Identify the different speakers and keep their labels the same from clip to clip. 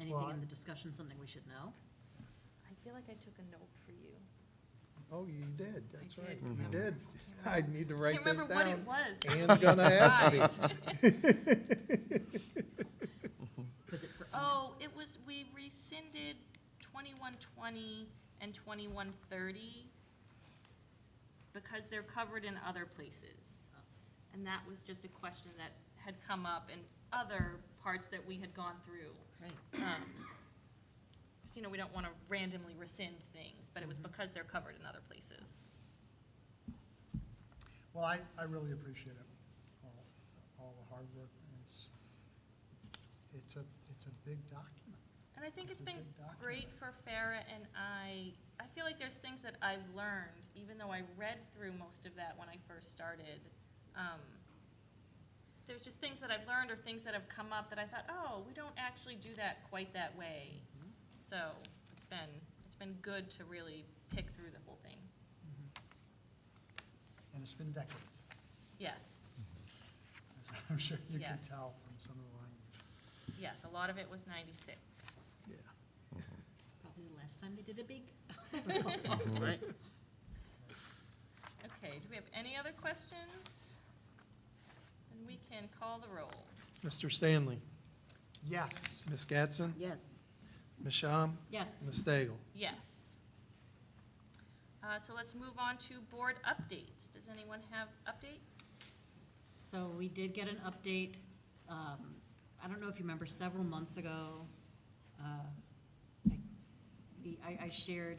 Speaker 1: anything
Speaker 2: Right.
Speaker 1: in the discussion, something we should know?
Speaker 3: I feel like I took a note for you.
Speaker 2: Oh, you did, that's
Speaker 3: did
Speaker 2: right,
Speaker 3: remember.
Speaker 2: you
Speaker 4: Mm-hmm.
Speaker 2: did. I need to write
Speaker 3: Can't
Speaker 2: this
Speaker 3: remember what it
Speaker 2: down.
Speaker 3: was.
Speaker 2: Anne's gonna ask me.
Speaker 3: Guys.
Speaker 1: Was it for?
Speaker 3: Oh, it was, we rescinded twenty-one twenty and twenty-one thirty because they're covered in other places. And that was just a question that had come up in other parts that we had gone through.
Speaker 1: Right,
Speaker 3: Because, you know, we don't want to randomly rescind things, but it
Speaker 2: Mm-hmm.
Speaker 3: was because they're covered in other places.
Speaker 2: Well, I, I really appreciate it, all, all the hard work. It's, it's a, it's a big document.
Speaker 3: And I think
Speaker 2: It's
Speaker 3: it's
Speaker 2: a
Speaker 3: been
Speaker 2: big document.
Speaker 3: great for Farah and I, I feel like there's things that I've learned, even though I read through most of that when I first started. Um, There's just things that I've learned or things that have come up that I thought, oh, we don't actually do that quite that way. So it's been, it's been good to really pick through the whole thing. Mm-hmm.
Speaker 2: And it's been decades,
Speaker 3: Yes,
Speaker 2: as I'm sure you can
Speaker 3: Yes.
Speaker 2: tell from some of the language.
Speaker 3: yes, a lot of it was ninety-six.
Speaker 2: Yeah.
Speaker 1: probably the last time they did a big.
Speaker 5: Right.
Speaker 3: Okay, do we have any other questions? And we can call the roll.
Speaker 4: Mr. Stanley,
Speaker 2: Yes,
Speaker 4: Ms. Gatson,
Speaker 5: Yes.
Speaker 4: Ms. Shum,
Speaker 1: Yes,
Speaker 4: Ms. Stagel.
Speaker 3: Yes. Uh, So let's move on to board updates. Does anyone have updates?
Speaker 1: so we did get an update. um, I don't know if you remember, several months ago, uh, I- the- I, I shared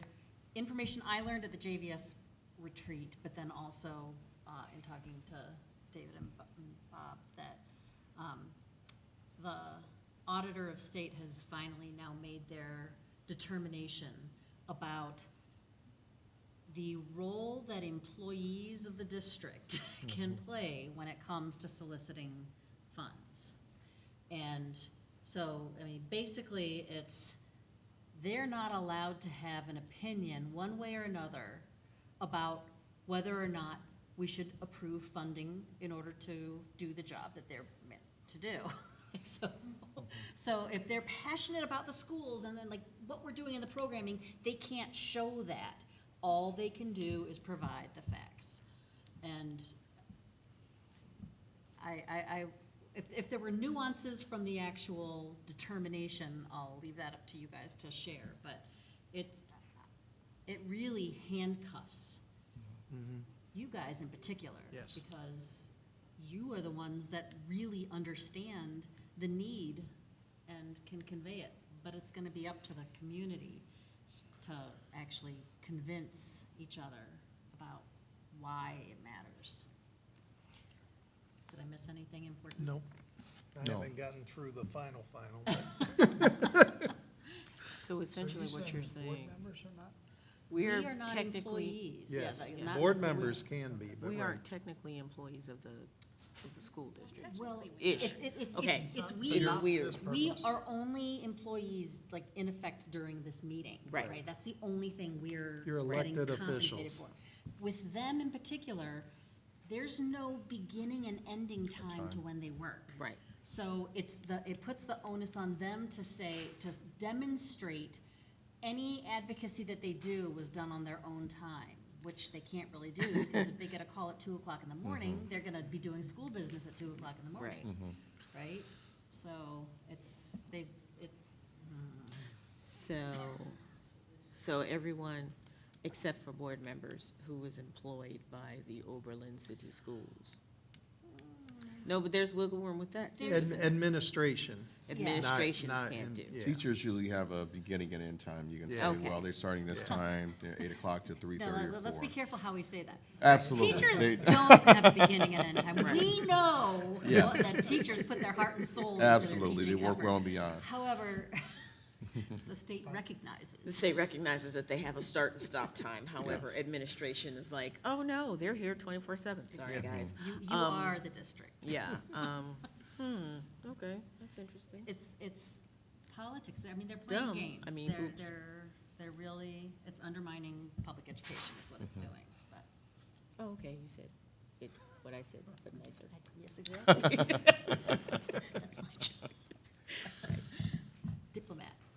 Speaker 1: information I learned at the JVS retreat, but then also uh, in talking to David and Bo- and Bob, that um, the auditor of state has finally now made their determination about the role that employees of the district can play when it comes to soliciting funds. And so, I mean, basically, it's, they're not allowed to have an opinion, one way or another, about whether or not we should approve funding in order to do the job that they're meant to do. So, so if they're passionate about the schools and then like what we're doing in the programming, they can't show that. All they can do is provide the facts. And I, I, I, if, if there were nuances from the actual determination, I'll leave that up to you guys to share, but it's, it really handcuffs
Speaker 4: Mhm.
Speaker 1: you guys in particular.
Speaker 4: Yes.
Speaker 1: Because you are the ones that really understand the need and can convey it. But it's gonna be up to the community to actually convince each other about why it matters. Did I miss anything important?
Speaker 4: Nope.
Speaker 2: I
Speaker 6: No.
Speaker 2: haven't gotten through the final, final. but-
Speaker 5: So essentially
Speaker 2: So
Speaker 5: what you're
Speaker 2: the board
Speaker 5: saying,
Speaker 2: members are not?
Speaker 1: We
Speaker 5: we're
Speaker 1: are not
Speaker 5: technically,
Speaker 1: employees. Yeah,
Speaker 2: Yes.
Speaker 1: that-
Speaker 5: Yeah.
Speaker 1: not
Speaker 2: Board
Speaker 1: necessarily-
Speaker 2: members can be, but
Speaker 5: we
Speaker 2: right.
Speaker 5: aren't technically employees of the, of the school district.
Speaker 1: Well,
Speaker 3: Technically,
Speaker 1: it,
Speaker 5: Ish.
Speaker 1: it, it's,
Speaker 5: Okay.
Speaker 1: it's, it's
Speaker 2: For
Speaker 1: we,
Speaker 5: It's
Speaker 2: not
Speaker 5: weird.
Speaker 2: this
Speaker 1: we
Speaker 2: purpose.
Speaker 1: are only employees, like, in effect during this meeting.
Speaker 5: Right.
Speaker 1: That's the only thing we're
Speaker 2: You're
Speaker 1: getting
Speaker 2: elected
Speaker 1: compensated
Speaker 2: officials.
Speaker 1: for. With them in particular, there's no beginning and ending time to when they work.
Speaker 5: Right.
Speaker 1: So it's the, it puts the onus on them to say, to demonstrate any advocacy that they do was done on their own time, which they can't really do, because if they get a call at two o'clock in the
Speaker 6: Mm-hmm.
Speaker 1: morning, they're gonna be doing school business at two o'clock in the morning,
Speaker 6: Mm-hmm.
Speaker 1: right? So it's, they, it, hmm.
Speaker 5: So, so everyone except for board members who was employed by the Oberlin City Schools. No, but there's wiggle room with that. too.
Speaker 1: There's-
Speaker 2: Ad- Administration.
Speaker 1: Not-
Speaker 5: Administrations
Speaker 2: not in-
Speaker 5: can't do.
Speaker 2: yeah.
Speaker 6: Teachers usually have a beginning and end time. You can
Speaker 2: Yeah.
Speaker 6: say,
Speaker 5: Okay.
Speaker 6: well, they're starting this
Speaker 2: Yeah.
Speaker 6: time, they're eight o'clock to three
Speaker 1: no,
Speaker 6: thirty
Speaker 1: let-
Speaker 6: or
Speaker 1: let's
Speaker 6: four.
Speaker 1: be careful how we say that.
Speaker 6: Absolutely. They-
Speaker 1: Teachers don't have a beginning and end time. We know
Speaker 6: Yeah.
Speaker 1: what- that teachers put their heart and soul into their teaching effort.
Speaker 6: Absolutely, they work well and beyond.
Speaker 1: However, the state recognizes.
Speaker 5: The state recognizes that they have a start and stop time, however,
Speaker 6: Yes.
Speaker 5: administration is like, oh, no, they're here twenty-four seven, sorry, guys.
Speaker 1: You, you
Speaker 5: Um,
Speaker 1: are the district.
Speaker 5: Yeah, um, hmm, okay, that's interesting.
Speaker 1: It's, it's politics. I mean, they're playing
Speaker 5: Dumb. I
Speaker 1: games.
Speaker 5: mean,
Speaker 1: They're,
Speaker 5: oops.
Speaker 1: they're, they're really, it's undermining public education is what
Speaker 5: Mm-hmm.
Speaker 1: it's doing, but.
Speaker 5: Oh, okay, you said it, what I said, but nicer.
Speaker 1: Yes, exactly. That's my job.